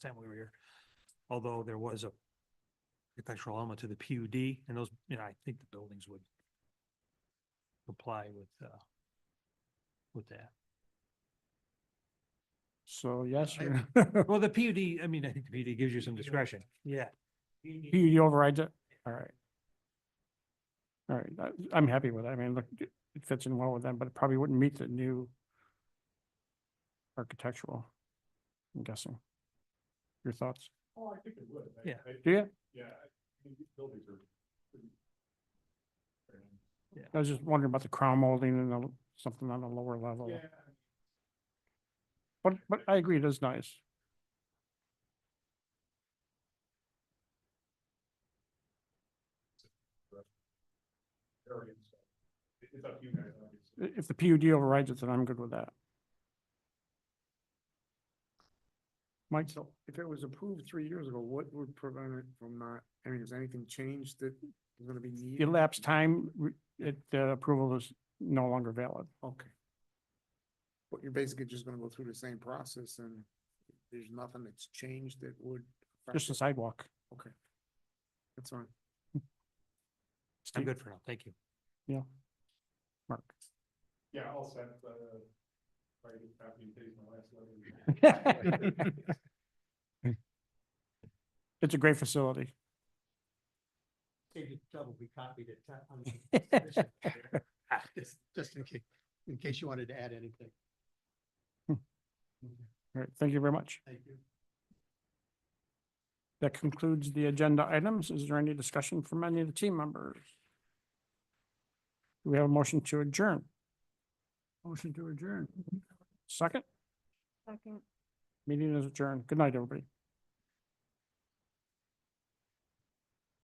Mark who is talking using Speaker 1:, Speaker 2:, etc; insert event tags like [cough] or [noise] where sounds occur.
Speaker 1: time we were here. Although there was a architectural element to the PUD and those, you know, I think the buildings would comply with, uh, with that.
Speaker 2: So yes,
Speaker 1: I-
Speaker 2: or
Speaker 1: [laughs] Well, the PUD, I mean, I think the PUD gives you some discretion. Yeah.
Speaker 2: [laughs] PUD overrides it? All right. All right, I- I'm happy with it. I mean, look, it it fits in well with them, but it probably wouldn't meet the new architectural, I'm guessing. Your thoughts?
Speaker 3: Oh, I think it would. I-
Speaker 1: Yeah.
Speaker 3: I-
Speaker 2: Do you?
Speaker 3: Yeah, I think these buildings are. pretty- pretty nice.
Speaker 2: I was just wondering about the crown molding and the- something on a lower level.
Speaker 3: Yeah, I mean,
Speaker 2: But, but I agree, it is nice.
Speaker 3: very inside. It- It's up to you guys. obviously.
Speaker 2: I- If the PUD overrides it, then I'm good with that. Mike?
Speaker 4: So if it was approved three years ago, what would prevent it from not, I mean, has anything changed that is gonna be needed?
Speaker 2: elapsed time, re- it, the approval is no longer valid.
Speaker 4: Okay. But you're basically just gonna go through the same process and there's nothing that's changed that would. affect
Speaker 2: Just the
Speaker 4: it.
Speaker 2: sidewalk.
Speaker 4: Okay. That's fine.
Speaker 1: I'm
Speaker 2: Steve,
Speaker 1: good for now. Thank you.
Speaker 2: Mark.
Speaker 3: Yeah, I'll send, uh, I just copy and paste my last letter.
Speaker 2: [laughs]
Speaker 3: [laughs]
Speaker 2: It's a great facility.
Speaker 5: Maybe double be copied at ti- on the submission. Just- Just in case, in case you wanted to add anything.
Speaker 2: All right, thank you very much.
Speaker 5: Thank you.
Speaker 2: That concludes the agenda items. Is there any discussion from any of the team members? Do we have a motion to adjourn? Motion to adjourn. Second,
Speaker 6: Second.
Speaker 2: meeting is adjourned. Good night, everybody.